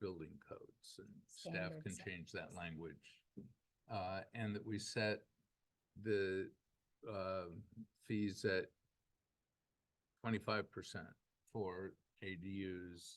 building codes and staff Standards can and- change that language. Uh, and that we set the, uh, fees at twenty-five percent for ADUs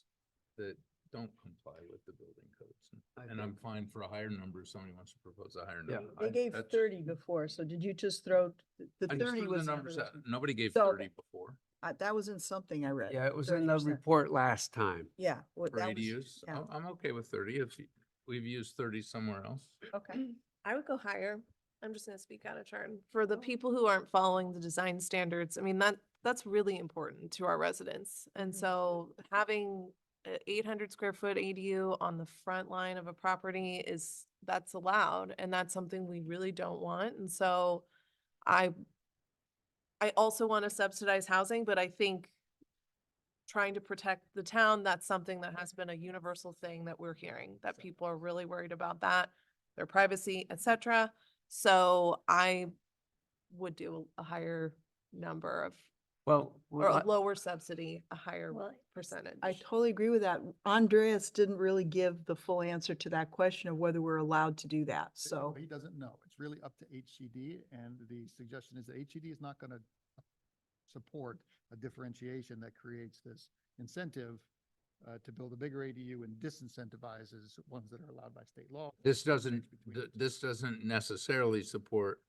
that don't comply with the building codes. I And I'm think- fine for a higher number if somebody wants to propose a higher Yeah, number. I- They gave that's- thirty before, so did you just throw, th- the I just thirty threw the was, numbers out. Nobody gave So- thirty before I- that was in something I read. Yeah, it was in the 30%. report last time. Yeah. well, for that was- ADUs. yeah. I'm, I'm okay with thirty if you- we've used thirty somewhere else. Okay, I would go higher. I'm just gonna speak out of turn. For the Oh. people who aren't following the design standards, I mean, that, that's really important to our residents. And Mhm. so having a eight hundred square foot ADU on the front line of a property is, that's allowed, and that's something we really don't want. And so I, I also want to subsidize housing, but I think trying to protect the town, that's something that has been a universal thing that we're hearing, that people are really worried about that, their privacy, et cetera. So I would do a higher number of, Well, or well, a lower subsidy, a higher Well, percentage. I totally agree with that. Andreas didn't really give the full answer to that question of whether we're allowed to do that, He- so. He doesn't know. It's really up to HCD and the suggestion is that HCD is not going to support a differentiation that creates this incentive uh, to build a bigger ADU and disincentivizes ones that are allowed by state law. This doesn't, Between th- the two. this doesn't necessarily support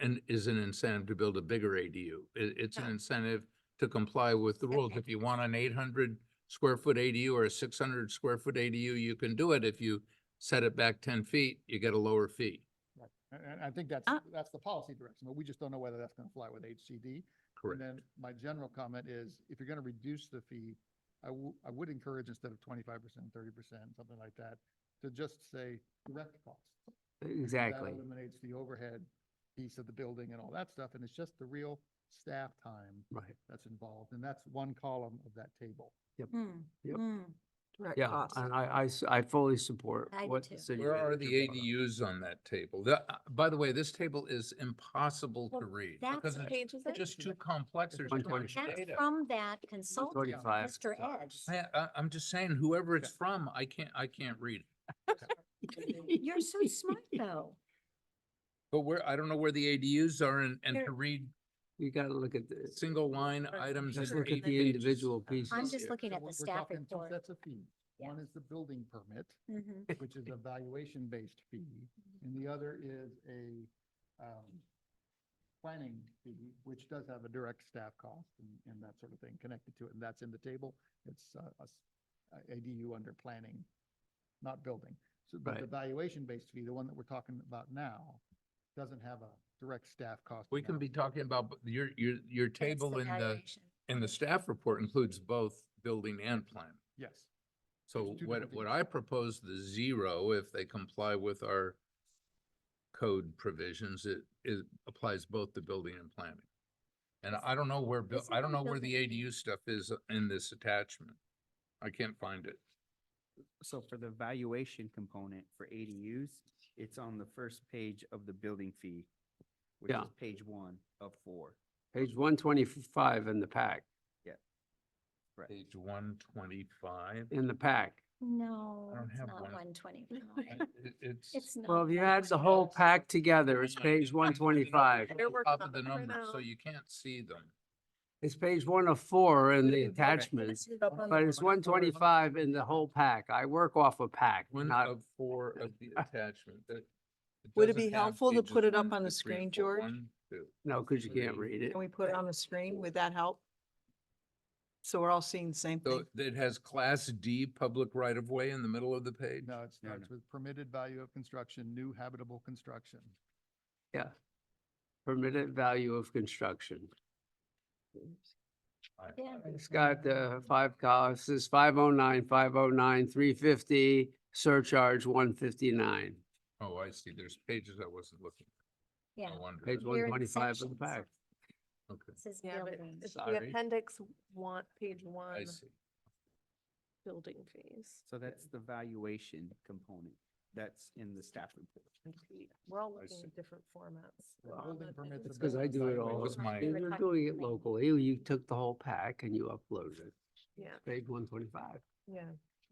and is an incentive to build a bigger ADU. It, it's an No. incentive to comply with the rules. If you want an eight hundred square foot ADU or a six hundred square foot ADU, you can do it. If you set it back ten feet, you get a lower fee, Right. And, and I think that's, Ah. that's the policy direction, but we just don't know whether that's going to fly with HCD. And correct? then my general comment is, if you're gonna reduce the fee, I w- I would encourage instead of twenty-five percent, thirty percent, something like that, to just say direct costs. That um, exactly. Eliminates the overhead piece of the building and all that stuff, and it's just the real staff time Right. that's involved, and that's one column of that table. Yep. direct Yeah, costs. and I, I s- I fully support I do what the too. city. Where are the manager brought up. ADUs on that table? The- uh, by the way, this table is impossible to Well, read that's because what it's Page is it? just too complex. There's too much 125. That's data. from that consultant, 45. Mr. Ed's. I, I, I'm just saying whoever it's Yeah. from, I can't, I can't read. it. You're so smart, though. But where, I don't know where the ADUs are and, and to They're- read You gotta look at this, single line items. just that are look at eight the pages. individual pieces. I'm just Yeah. looking So at we're- the we're staff talking two report. Sets of fees. Yeah. One is the building permit, Mhm. which is a valuation-based fee, and the other is a, um, planning fee, which does have a direct staff cost and, and that sort of thing connected to it, and that's in the table. It's, uh, a s- a ADU under planning, not building. So, but the Right. valuation-based fee, the one that we're talking about now, doesn't have a direct staff cost. We can be analysis. talking about, but your, your, your That's table in the, valuation. in the staff report includes both building and plan. Yes. So two what, different what things. I propose, the zero, if they comply with our code provisions, it, it applies both to building and planning. And I don't know where, buil- Isn't I don't the know where the building- ADU stuff is in this attachment. I can't find it. So for the valuation component for ADUs, it's on the first page of the building fee, which Yeah. is page one of four. Page one twenty-five in the pack, Correct. Page one twenty-five. in the pack. No, don't it's have not one. one twenty-five. It's. It's not. Well, if you had the whole pack together, it's Hang on, page I'm looking one at the twenty-five. numbers. They're It's working Top on of the it right numbers, so now. you can't see them. It's page one of four in the Okay. attachments, but One it's of one four is- twenty-five in the whole pack. I work off a pack, One not- of four of the attachment that. Would it doesn't be have helpful to pages put it up one, on two, the three, screen, four. George? One, two, no, because you can't three. read it. Can we put it on the screen? Would that help? So we're all seeing the same So thing. it has class D public right of way in the middle of the page? No, it No, starts with permitted value of construction, new habitable construction. Yeah. Permitted value of construction. I- Yeah. It's got the five costs, it's five oh nine, five oh nine, three fifty, surcharge one fifty-nine. Oh, I see. There's pages I wasn't looking. at. Yeah. No wonder. Page We're in 125 of the sections. pack. Okay, This is Yeah, but buildings. it's the Sorry. appendix one, page one, I see. building fees. So that's the valuation component that's in the staff report. We're all I looking see. at different formats. The Wow. building permits It's are 'cause based I on do it valuation. all. was my- You were doing it locally, you took the whole pack and you uploaded it, Yeah, page one twenty-five. yeah.